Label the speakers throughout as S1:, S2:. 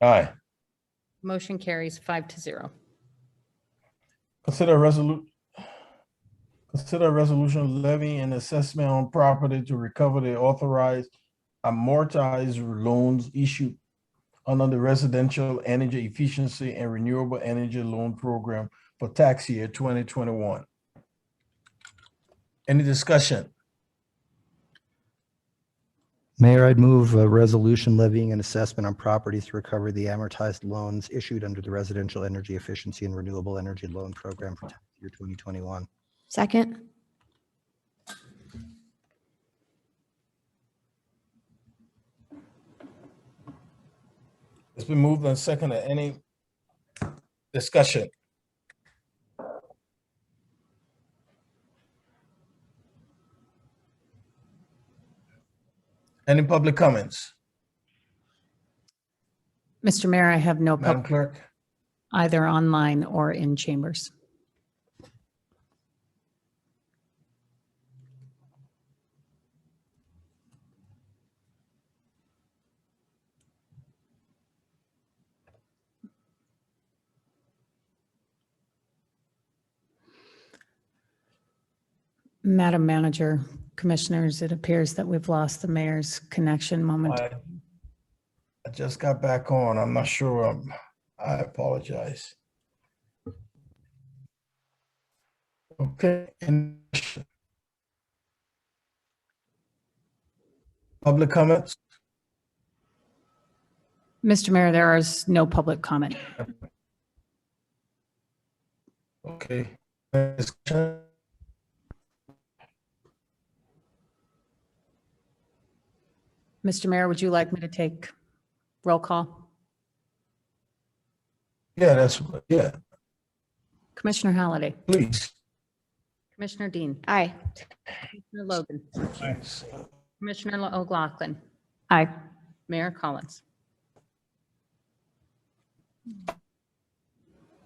S1: Aye.
S2: Motion carries five to zero.
S1: Consider resolu- consider a resolution levying an assessment on property to recover the authorized amortized loans issued under the Residential Energy Efficiency and Renewable Energy Loan Program for tax year twenty twenty-one. Any discussion?
S3: Mayor, I'd move a resolution levying an assessment on properties to recover the amortized loans issued under the Residential Energy Efficiency and Renewable Energy Loan Program for tax year 2021.
S4: Second.
S1: It's been moved and seconded. Any discussion? Any public comments?
S2: Mr. Mayor, I have no
S1: Madam
S2: public
S1: Clerk?
S2: either online or in chambers. Madam Manager, Commissioners, it appears that we've lost the mayor's connection momentarily.
S1: I I just got back on. I'm not sure. um, I apologize. Okay. and- Public comments?
S2: Mr. Mayor, there is no public comment.
S1: Okay. Discussion?
S2: Mr. Mayor, would you like me to take roll call?
S1: Yeah, that's, yeah,
S2: Commissioner Halliday,
S1: please.
S2: Commissioner Dean,
S4: Aye.
S2: Commissioner Logan,
S1: Thanks.
S2: Commissioner Lo- O'Loughlin. Aye. Mayor Collins.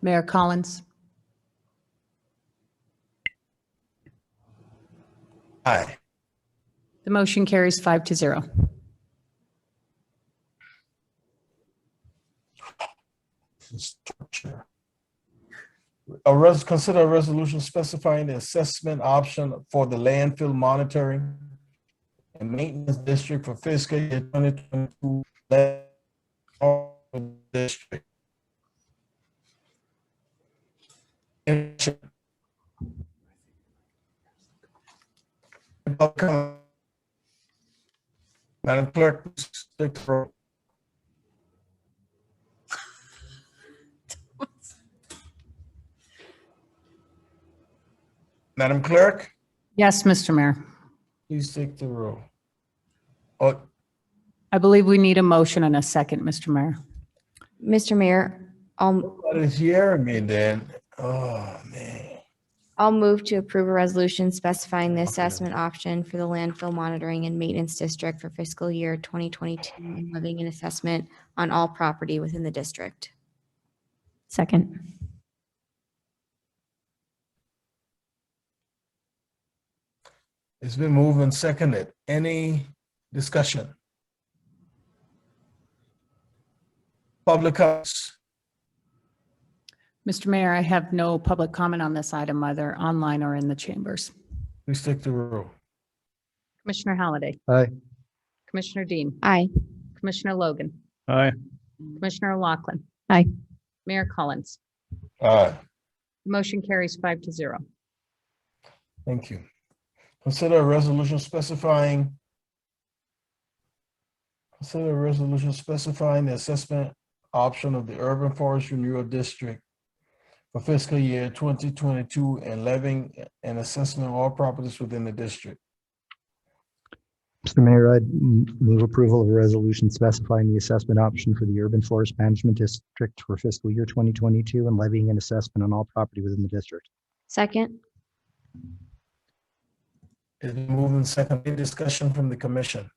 S2: Mayor Collins,
S1: Aye.
S2: the motion carries five to zero.
S1: structure. A res, consider a resolution specifying the assessment option for the landfill monitoring and maintenance district for fiscal year twenty twenty-two. District. Any public comment? Madam Clerk, please take the roll. Madam Clerk?
S2: Yes, Mr. Mayor,
S1: Please take the roll. Oh,
S2: I believe we need a motion and a second, Mr. Mayor.
S4: Mr. Mayor, I'll,
S1: it's hearing me then. Oh, man.
S4: I'll move to approve a resolution specifying the assessment option for the landfill monitoring and maintenance district for fiscal year 2022 and levying an assessment on all property within the district. Second.
S1: It's been moved and seconded. Any discussion? Public comments?
S2: Mr. Mayor, I have no public comment on this item either online or in the chambers.
S1: please take the roll.
S2: Commissioner Halliday,
S3: Aye.
S2: Commissioner Dean,
S4: Aye.
S2: Commissioner Logan.
S5: Aye.
S2: Commissioner Lachlan.
S4: Aye.
S2: Mayor Collins.
S1: Aye.
S2: Motion carries five to zero.
S1: Thank you. Consider a resolution specifying consider a resolution specifying the assessment option of the urban forest renewal district for fiscal year twenty twenty-two and levying an assessment of all properties within the district.
S3: Mr. Mayor, I'd m- move approval of a resolution specifying the assessment option for the Urban Forest Management District for fiscal year 2022 and levying an assessment on all property within the district.
S4: Second.
S1: It's been moved and seconded. Any discussion from the commission?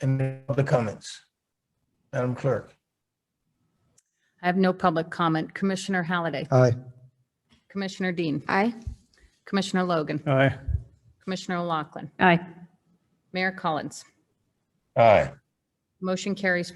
S1: Any other comments? Madam Clerk?
S2: I have no public comment. Commissioner Halliday,
S3: Aye.
S2: Commissioner Dean,
S4: Aye.
S2: Commissioner Logan,
S5: Aye.
S2: Commissioner Lachlan. Aye. Mayor Collins.
S1: Aye.
S2: Motion carries